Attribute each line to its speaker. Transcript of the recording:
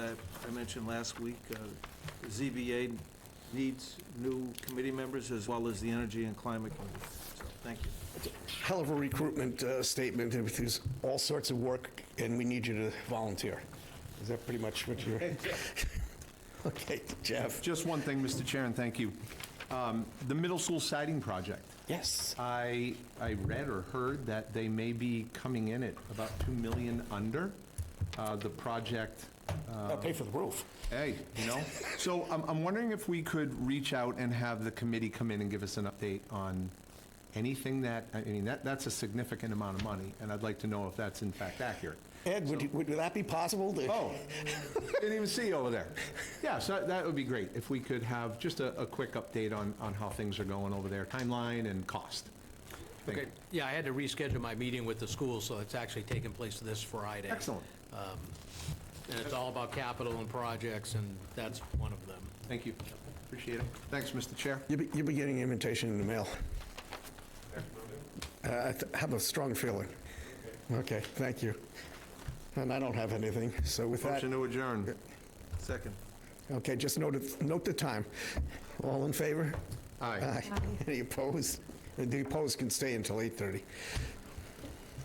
Speaker 1: I mentioned last week, uh, ZBA needs new committee members as well as the Energy and Climate Committee. So, thank you.
Speaker 2: Hell of a recruitment uh, statement, and there's all sorts of work, and we need you to volunteer. Is that pretty much what you're? Okay, Jeff?
Speaker 3: Just one thing, Mr. Chair, and thank you. Um, The middle school siding project,
Speaker 2: Yes.
Speaker 3: I, I read or heard that they may be coming in at about 2 million under uh, the project, Uh,
Speaker 2: I'll pay for the roof.
Speaker 3: hey, you know? So I'm, I'm wondering if we could reach out and have the committee come in and give us an update on anything that, I mean, that, that's a significant amount of money, and I'd like to know if that's in fact accurate.
Speaker 2: Ed, would you- would that be possible? to-
Speaker 3: Oh, didn't even see you over there. Yeah, so that- that would be great, if we could have just a, a quick update on, on how things are going over there, timeline and cost. Thank you.
Speaker 4: Okay, yeah, I had to reschedule my meeting with the school, so it's actually taking place this Friday.
Speaker 3: Excellent,
Speaker 4: And it's all about capital and projects, and that's one of them.
Speaker 3: thank you, appreciate it. Thanks, Mr. Chair.
Speaker 2: You'll be you'll be getting an invitation in the mail. Uh, I th- have a strong feeling. Okay, thank you. And I don't have anything, so with that,
Speaker 3: Motion to adjourn.
Speaker 1: Second.
Speaker 2: okay, just note, it- note the time. All in favor?
Speaker 3: Aye.
Speaker 2: Any opposed? The opposed can stay until 8:30.